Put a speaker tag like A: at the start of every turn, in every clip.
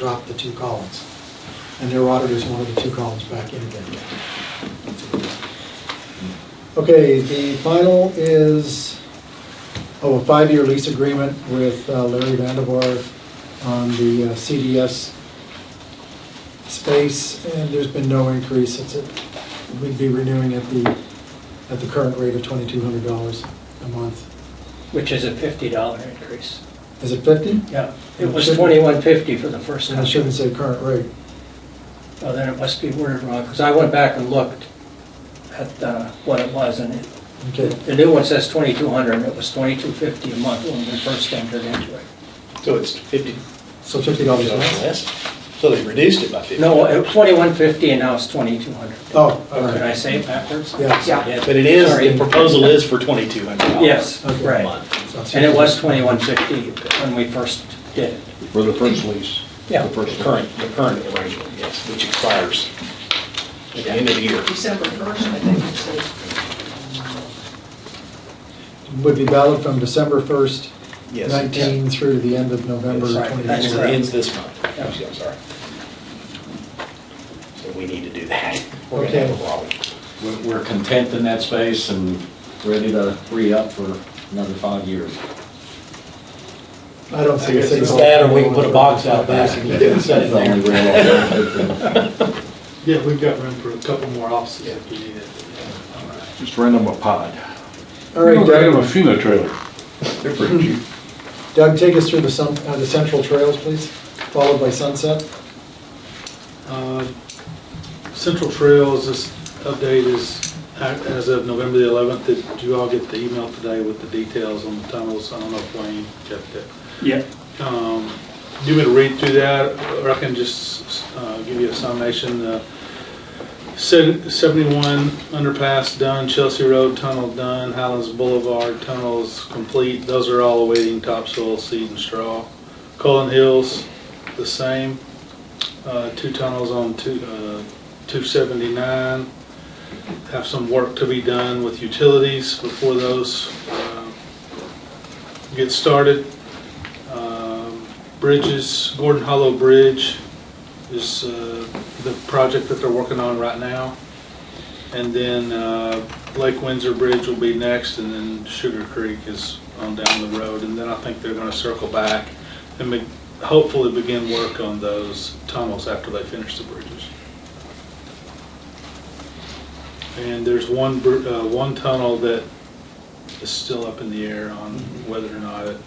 A: drop the two columns. And their auditors wanted the two columns back in again. Okay, the final is, oh, a five-year lease agreement with uh, Larry Vandevar on the uh, CDS space, and there's been no increase. It's, a- we'd be renewing at the, at the current rate of twenty-two hundred dollars a month.
B: Which is a fifty dollar increase.
A: Is it fifty?
B: Yeah, it was twenty-one fifty for the first
A: I shouldn't
B: contract.
A: say current rate.
B: Well, then it must be worded wrong, because I went back and looked at uh, what it was, and it-
A: Okay,
B: the new one says twenty-two hundred, and it was twenty-two fifty a month when we first entered into it.
C: So it's fifty
A: so fifty dollars
C: dollars
A: a month?
C: less? So they reduced it by fifty?
B: No, it was twenty-one fifty, and now it's twenty-two hundred.
A: Oh, all
B: Did I
A: right.
B: say it backwards?
A: Yeah.
D: Yeah.
C: But it is,
B: Sorry.
C: the proposal is for twenty-two hundred dollars.
B: Yes,
A: Okay.
B: right. And it was twenty-one fifty when we first did it.
E: For the first lease?
B: Yeah.
E: The first
C: Current, the current arrangement, yes, which expires at the end of the year.
D: December 1st, I think it says.
A: Would be valid from December first,
C: Yes.
A: nineteen through the end of November
C: Yes.
B: Right, that's
C: It
A: twenty-four.
B: correct.
C: ends this month.
B: Yeah.
C: Actually, I'm sorry. So we need to do that. We're
A: Okay.
C: gonna have a problem.
F: We're- We're content in that space and ready to re-up for another five years.
A: I don't see a
C: It's
A: single.
C: that, or we can put a box out back and set it
F: That's the
C: there.
F: only real alternative.
G: Yeah, we've got room for a couple more offices if we need it.
E: Just rent them a pod.
A: All right,
E: Rent them a
A: Doug,
E: funeral trailer. They're pretty cheap.
A: Doug, take us through the sun, uh, the central trails, please, followed by Sunset.
G: Uh, Central Trails, this update is a- as of November the 11th. Did you all get the email today with the details on the tunnels? I don't know if Wayne got that.
B: Yeah.
G: Um, Do you want me to read through that, or I can just uh, give you a summation? Uh, se- 71 underpass done, Chelsea Road tunnel done, Highlands Boulevard tunnels complete. Those are all awaiting topsoil, seed, and straw. Cullen Hills, the same. Uh, Two tunnels on two, uh, 279. Have some work to be done with utilities before those uh, get started. Um, Bridges, Gordon Hollow Bridge is uh, the project that they're working on right now. And then uh, Lake Windsor Bridge will be next, and then Sugar Creek is on down the road. And then I think they're gonna circle back and be- hopefully begin work on those tunnels after they finish the bridges. And there's one, br- uh, one tunnel that is still up in the air on whether or not it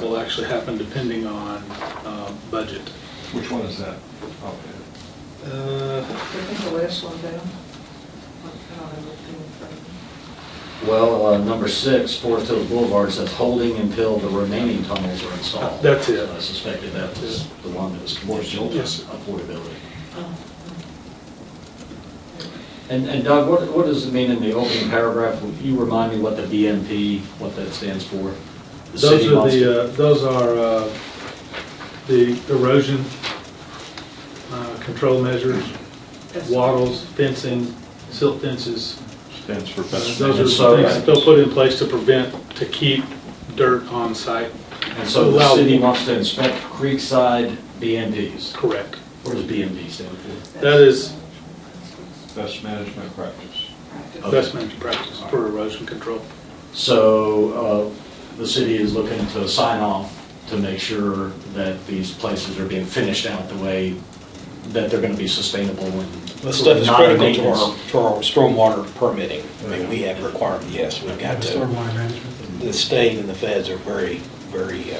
G: will actually happen depending on um, budget.
E: Which one is that? Oh,
G: Uh,
D: I think the last one down. I don't have it in front of me.
F: Well, uh, number six, Forest Hills Boulevard says holding until the remaining tunnels are installed.
G: That's it.
F: I suspected that was the one that was conditional to
G: Yes.
F: affordability.
D: Oh,
F: And and Doug, what what does it mean in the opening paragraph? Will you remind me what the BMP, what that stands for? The
G: Those
F: city
G: are
F: wants to-
G: the, uh, those are uh, the erosion uh, control measures,
D: that's-
G: wattles, fencing, silt fences. Uh,
E: Stands for
G: Those
E: best.
G: are
F: And
G: the
F: so-
G: things they'll put in place to prevent, to keep dirt on site.
F: And so the
G: allow-
F: city wants to inspect Creekside BMPs.
G: Correct.
F: What does BMP stand for?
G: That is
E: Best management practice.
F: Okay.
G: best management practice for erosion control.
F: So uh, the city is looking to sign off to make sure that these places are being finished out the way that they're going to be sustainable and.
C: This stuff is
F: not
C: critical to our,
F: maintenance.
C: to our stormwater permitting. I mean, we have requirement, yes, we've got to.
A: Stormwater management.
C: The state and the feds are very, very uh,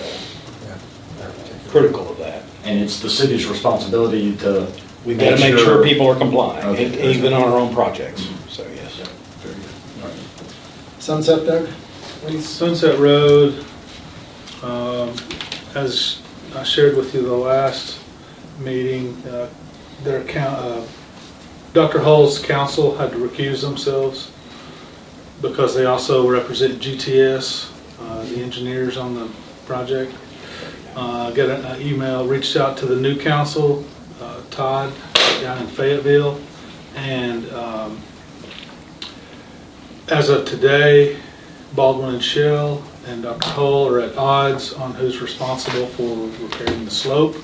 A: Yeah.
C: critical of that.
F: And it's the city's responsibility to.
C: We've got to make sure people are compliant, e- even on our own projects, so yes.
F: Very good. All right.
A: Sunset, Doug?
G: Sunset Road, um, as I shared with you the last meeting, uh, their coun- uh, Dr. Hull's council had to recuse themselves because they also represent GTS, uh, the engineers on the project. Uh, Got an uh, email, reached out to the new council, uh, Todd, down in Fayetteville, and um, as of today, Baldwin and Shell and Dr. Hull are at odds on who's responsible for repairing the slope.